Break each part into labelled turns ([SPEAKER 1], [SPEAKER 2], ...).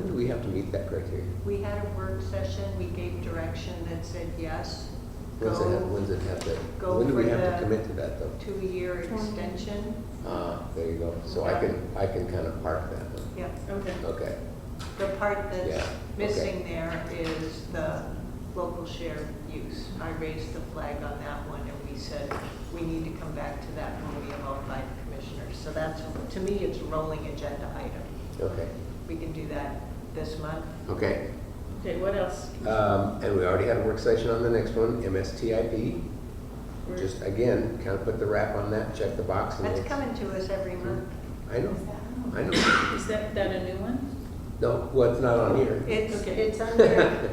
[SPEAKER 1] meet that criteria?
[SPEAKER 2] We had a work session, we gave direction that said yes,
[SPEAKER 1] When's it, hap-
[SPEAKER 2] go
[SPEAKER 1] when's it have to,
[SPEAKER 2] go
[SPEAKER 1] when do we
[SPEAKER 2] for
[SPEAKER 1] have to
[SPEAKER 2] the-
[SPEAKER 1] commit to that though?
[SPEAKER 2] to a year extension.
[SPEAKER 1] Ah, there you go. So I can, I can kind of park that one.
[SPEAKER 2] Yep,
[SPEAKER 3] Okay.
[SPEAKER 1] Okay,
[SPEAKER 2] the part
[SPEAKER 1] Yeah,
[SPEAKER 2] that's
[SPEAKER 1] okay.
[SPEAKER 2] missing there is the local share use. I raised the flag on that one and we said, we need to come back to that when we have all five commissioners. So that's, to me, it's a rolling agenda item.
[SPEAKER 1] okay,
[SPEAKER 2] We can do that this month.
[SPEAKER 1] okay.
[SPEAKER 3] Okay, what else?
[SPEAKER 1] Um, and we already had a work session on the next one, MSTIP.
[SPEAKER 3] We're-
[SPEAKER 1] Just again, kind of put the wrap on that, check the box and
[SPEAKER 2] That's
[SPEAKER 1] it's-
[SPEAKER 2] coming to us every month.
[SPEAKER 1] I know, I know.
[SPEAKER 3] Is that, that a new one?
[SPEAKER 1] No, well, it's not on here.
[SPEAKER 2] It's,
[SPEAKER 3] Okay.
[SPEAKER 2] it's under.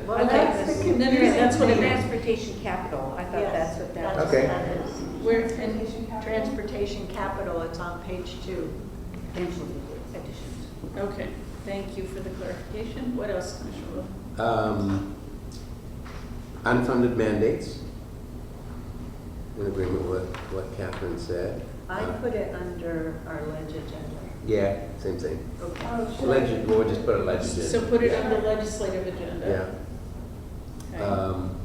[SPEAKER 4] Well, that's the
[SPEAKER 3] No, no, no, that's what it is.
[SPEAKER 4] Transportation capital, I thought that's what that was.
[SPEAKER 1] Okay.
[SPEAKER 3] Where, in
[SPEAKER 4] Transportation capital?
[SPEAKER 2] Transportation capital, it's on page two.
[SPEAKER 4] Additions.
[SPEAKER 3] Okay, thank you for the clarification. What else, Commissioner Wu?
[SPEAKER 1] Um, unfunded mandates. In agreement with what Catherine said.
[SPEAKER 2] I
[SPEAKER 1] Uh,
[SPEAKER 2] put it under our ledge agenda.
[SPEAKER 1] Yeah, same thing.
[SPEAKER 2] Okay.
[SPEAKER 1] Legend, we'll just put a legend in.
[SPEAKER 3] So put it
[SPEAKER 1] Yeah.
[SPEAKER 3] on the legislative agenda. Okay.
[SPEAKER 1] Yeah. Um,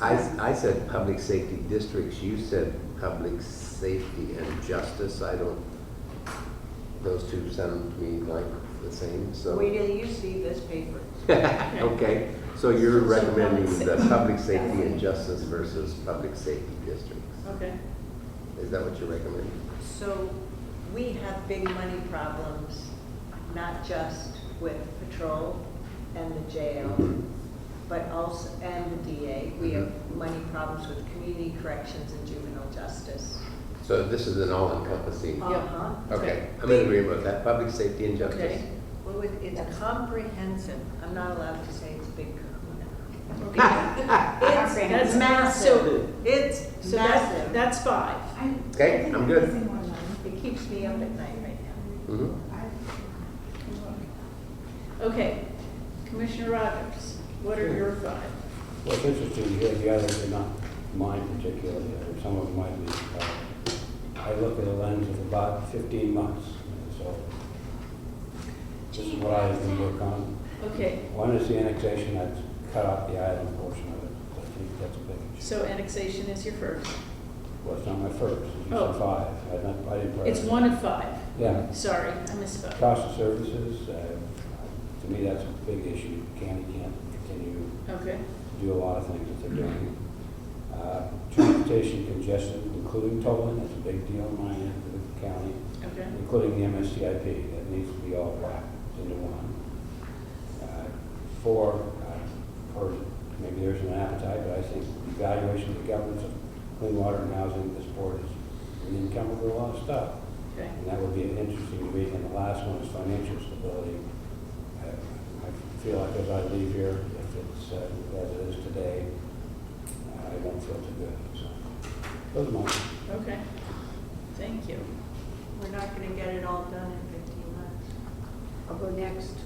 [SPEAKER 1] I, I said public safety districts, you said public safety and justice, I don't, those two sound to me like the same, so.
[SPEAKER 2] Wait till you see this paper.
[SPEAKER 1] Okay, so you're
[SPEAKER 3] So
[SPEAKER 1] recommending
[SPEAKER 3] public
[SPEAKER 1] the
[SPEAKER 3] safety.
[SPEAKER 1] public safety and justice versus public safety districts?
[SPEAKER 3] Okay,
[SPEAKER 1] Is that what you're recommending?
[SPEAKER 2] So we have big money problems, not just with patrol and the jail, but also, and the DA. We have
[SPEAKER 1] Mm-hmm.
[SPEAKER 2] money problems with community corrections and juvenile justice.
[SPEAKER 1] So this is an all-encompassing,
[SPEAKER 3] Yep.
[SPEAKER 2] Uh-huh.
[SPEAKER 1] okay, I'm in agreement with that, public safety and justice.
[SPEAKER 3] Okay.
[SPEAKER 2] Well, it- it's comprehensive. I'm not allowed to say it's big.
[SPEAKER 3] okay.
[SPEAKER 2] It's
[SPEAKER 3] That's-
[SPEAKER 2] massive.
[SPEAKER 3] so-
[SPEAKER 2] It's
[SPEAKER 3] So that,
[SPEAKER 2] massive.
[SPEAKER 3] that's five.
[SPEAKER 1] Okay, I'm good.
[SPEAKER 2] It keeps me up at night right now.
[SPEAKER 1] Mhm.
[SPEAKER 3] Okay, Commissioner Rogers, what are your five?
[SPEAKER 5] Well, it's interesting, you have the others, are not mine particularly, or some of them might be. uh, I look at a lens of about 15 months, so this is what I've been working on.
[SPEAKER 3] Okay,
[SPEAKER 5] One is the annexation, I've cut off the island portion of it, I think that's a big issue.
[SPEAKER 3] so annexation is your first.
[SPEAKER 5] Well, it's not my first, it's
[SPEAKER 3] Oh.
[SPEAKER 5] usually five, I didn't, I didn't.
[SPEAKER 3] It's one of five.
[SPEAKER 5] Yeah,
[SPEAKER 3] Sorry, I misspoke.
[SPEAKER 5] cost of services, uh, to me, that's a big issue, county can't continue
[SPEAKER 3] Okay,
[SPEAKER 5] do a lot of things that they're doing. Uh, Transportation congestion, including tolling, that's a big deal in my end of the county,
[SPEAKER 3] okay,
[SPEAKER 5] including the MSCIP, that needs to be all wrapped into one. Uh, Four, uh, or maybe there's an appetite, but I think evaluation of the governance of clean water and housing, this board is, we need to come up with a lot of stuff.
[SPEAKER 3] okay.
[SPEAKER 5] And that would be an interesting read, and the last one is financial stability. I I feel like as I leave here, if it's uh, as it is today, I don't feel too good, so. Those are mine.
[SPEAKER 3] Okay, thank you.
[SPEAKER 2] We're not going to get it all done in 15 months.
[SPEAKER 4] I'll go next.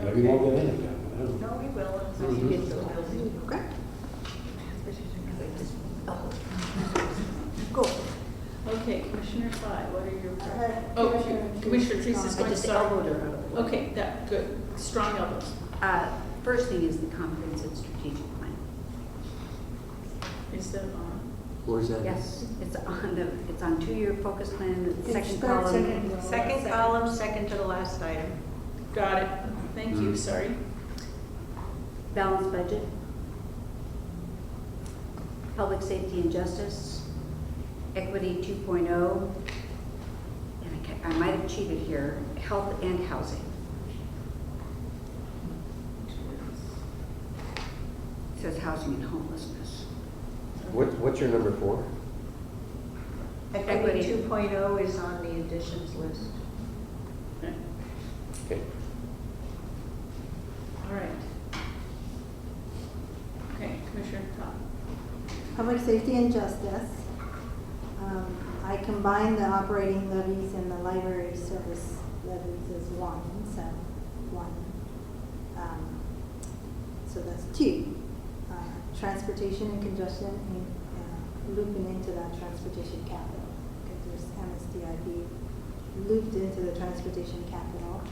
[SPEAKER 5] Maybe we'll get in again, I don't know.
[SPEAKER 2] No, we will, unless you get the building.
[SPEAKER 4] Okay. Go.
[SPEAKER 3] Okay, Commissioner Fly, what are your? Oh, you- Commissioner Teresa's
[SPEAKER 4] Uh, I
[SPEAKER 3] going to
[SPEAKER 4] just
[SPEAKER 3] start.
[SPEAKER 4] elbowed her.
[SPEAKER 3] Okay, that, good, strong elbows.
[SPEAKER 4] Uh, First thing is the comprehensive strategic plan.
[SPEAKER 3] Is that on?
[SPEAKER 1] Where's that?
[SPEAKER 4] Yes, it's on the, it's on two-year focus plan, the second
[SPEAKER 6] starts in
[SPEAKER 4] column.
[SPEAKER 2] Second column, second to the last item.
[SPEAKER 3] Got it, thank you,
[SPEAKER 1] Mm.
[SPEAKER 3] sorry.
[SPEAKER 4] balanced budget, public safety and justice, equity 2.0, and I ca- I might have cheated here, health and housing. It says housing and homelessness.
[SPEAKER 1] What, what's your number four?
[SPEAKER 2] Equity
[SPEAKER 4] Equity.
[SPEAKER 2] 2.0 is on the additions list.
[SPEAKER 3] Okay,
[SPEAKER 1] Okay.
[SPEAKER 3] All right. Okay, Commissioner Todd.
[SPEAKER 6] Public safety and justice. Um, I combine the operating levies and the library service levies as one, so one. Um, So that's two. Uh, Transportation and congestion, and uh, looping into that transportation capital, because there's MSDIB looped into the transportation capital.